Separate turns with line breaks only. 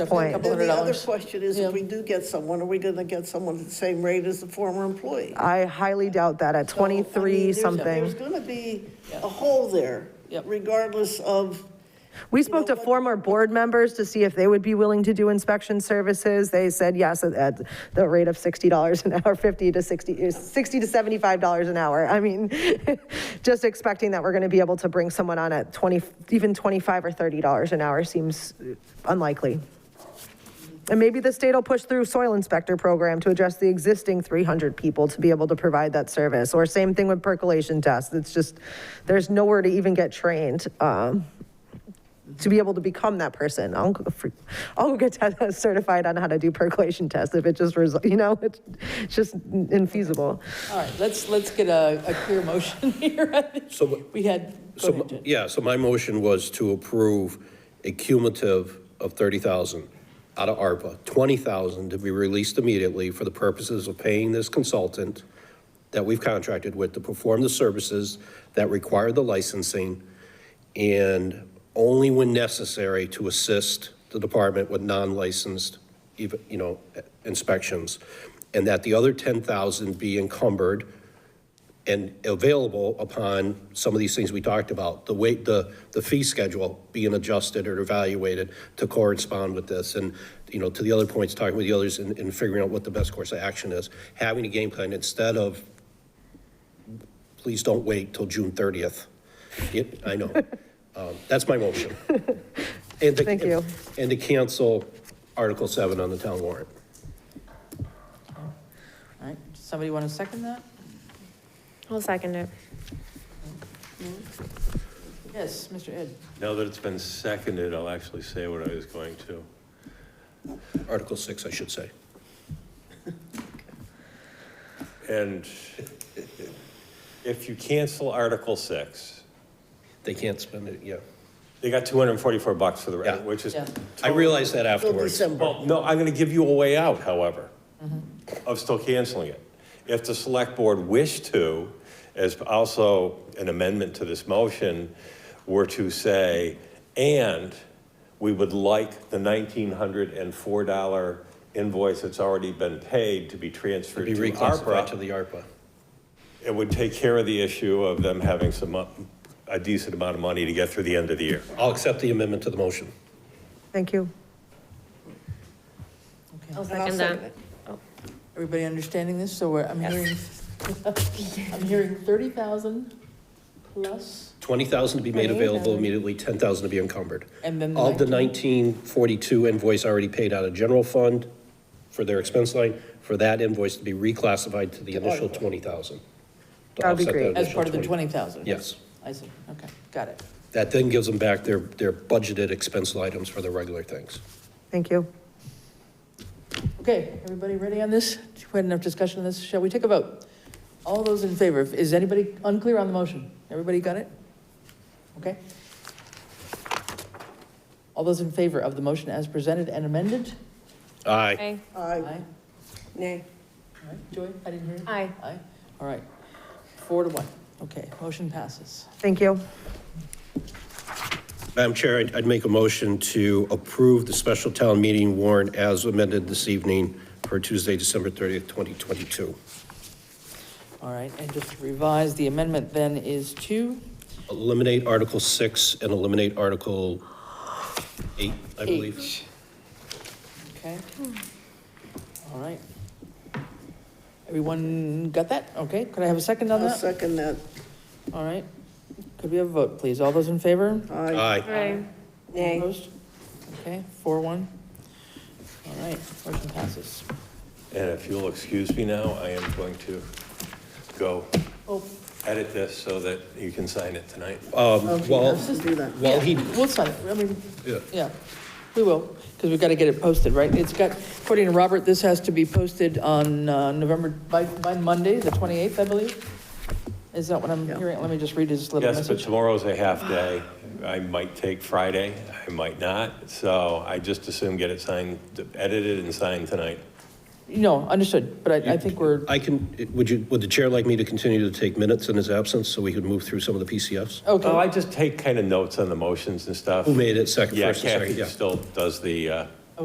point.
Couple
Then
hundred
the other
dollars.
question is,
Yeah.
if we do get someone, are we going to get someone at the same rate as the former employee?
I highly doubt that at
So, I mean,
23
there's- There's
something.
going to be a hole there,
Yep.
regardless of,
We spoke to
know,
former board members to see if they would be willing to do inspection services. They said yes at, at the rate of $60 an hour, 50 to 60, uh, 60 to $75 an hour. I mean, just expecting that we're going to be able to bring someone on at 20, even 25 or $30 an hour seems unlikely. And maybe the state will push through soil inspector program to address the existing 300 people to be able to provide that service. Or same thing with percolation tests. It's just, there's nowhere to even get trained um, to be able to become that person. I'll go, for, I'll go get te- certified on how to do percolation tests if it just, res- you know, it's it's just infeasible.
All right, let's, let's get a, a clear motion here. I think
So what-
We had, go
So,
ahead, Jen.
yeah, so my motion was to approve a cumulative of 30,000 out of ARPA, 20,000 to be released immediately for the purposes of paying this consultant that we've contracted with to perform the services that require the licensing and only when necessary to assist the department with non-licensed, even- you know, inspections. And that the other 10,000 be encumbered and available upon some of these things we talked about, the way, the, the fee schedule being adjusted or evaluated to correspond with this, and, you know, to the other points, talking with the others and, and figuring out what the best course of action is, having a game plan instead of, please don't wait till June thirtieth. I know. Um, That's my motion. And to-
Thank you.
And to cancel Article seven on the town warrant.
All right, does somebody want to second that?
I'll second it.
Yes, Mr. Ed.
Now that it's been seconded, I'll actually say what I was going to.
Article six, I should say.
And if you cancel Article 6,
They can't spend it, yeah.
they got 244 bucks for the,
Yeah.
rest, which is,
Yeah.
I realized that
till
afterwards.
December.
well, no, I'm going to give you a way out, however,
Mm-hmm.
of still canceling it. If the select board wished to, as also an amendment to this motion, were to say, and we would like the $1,904 invoice that's already been paid to be transferred
Be
to
reclassified
ARPA.
to the ARPA.
It would take care of the issue of them having some, mo- a decent amount of money to get through the end of the year.
I'll accept the amendment to the motion.
Thank you.
I'll
And I'll
second
second
that.
it.
Everybody understanding this? So we're, I'm hearing, I'm hearing 30,000 plus,
20,000 to be made available immediately, 10,000 to be encumbered.
And then the
Of the
19?
1942 invoice already paid out of general fund for their expense line, for that invoice to be reclassified to the initial 20,000. to
That would be
offset that
great.
as
initial
part of the
20.
20,000?
Yes.
I see, okay, got it.
That then gives them back their, their budgeted expense items for their regular things.
Thank you.
Okay, everybody ready on this? We had enough discussion on this, shall we take a vote? All those in favor, is anybody unclear on the motion? Everybody got it? Okay. All those in favor of the motion as presented and amended?
Aye.
I,
Aye.
Aye.
nay.
All right, Joy, I didn't hear you.
Aye.
Aye, all right. Four to one, okay, motion passes.
Thank you.
Madam Chair, I'd, I'd make a motion to approve the special town meeting warrant as amended this evening for Tuesday, December 30th, 2022.
All right, and just to revise, the amendment then is to
Eliminate Article 6 and eliminate Article 8, I believe.
H. Okay. All right. Everyone got that? Okay, could I have a second on
I'll
that?
second that.
All right. Could we have a vote, please? All those in favor?
Aye.
Aye.
Aye.
Opposed? Okay, four, one. All right, motion passes.
And if you'll excuse me now, I am going to go
Oh,
edit this so that you can sign it tonight.
Um, Well,
Just do that.
well, he,
We'll sign it, I mean,
Yeah.
yeah, we will, because we've got to get it posted, right? It's got, according to Robert, this has to be posted on uh, November, by, by Monday, the 28th, I believe? Is that what I'm hearing? Let me just read his little
Yes, but
message.
tomorrow's a half day. I might take Friday, I might not. So I just assume get it signed, edited and signed tonight.
No, understood, but I, I think we're,
I can, would you, would the chair like me to continue to take minutes in his absence so we could move through some of the PCFs?
Well,
okay,
I just take kind of notes on the motions and stuff.
Who made it, second,
Yeah,
first and second?
Kathy still does the, uh,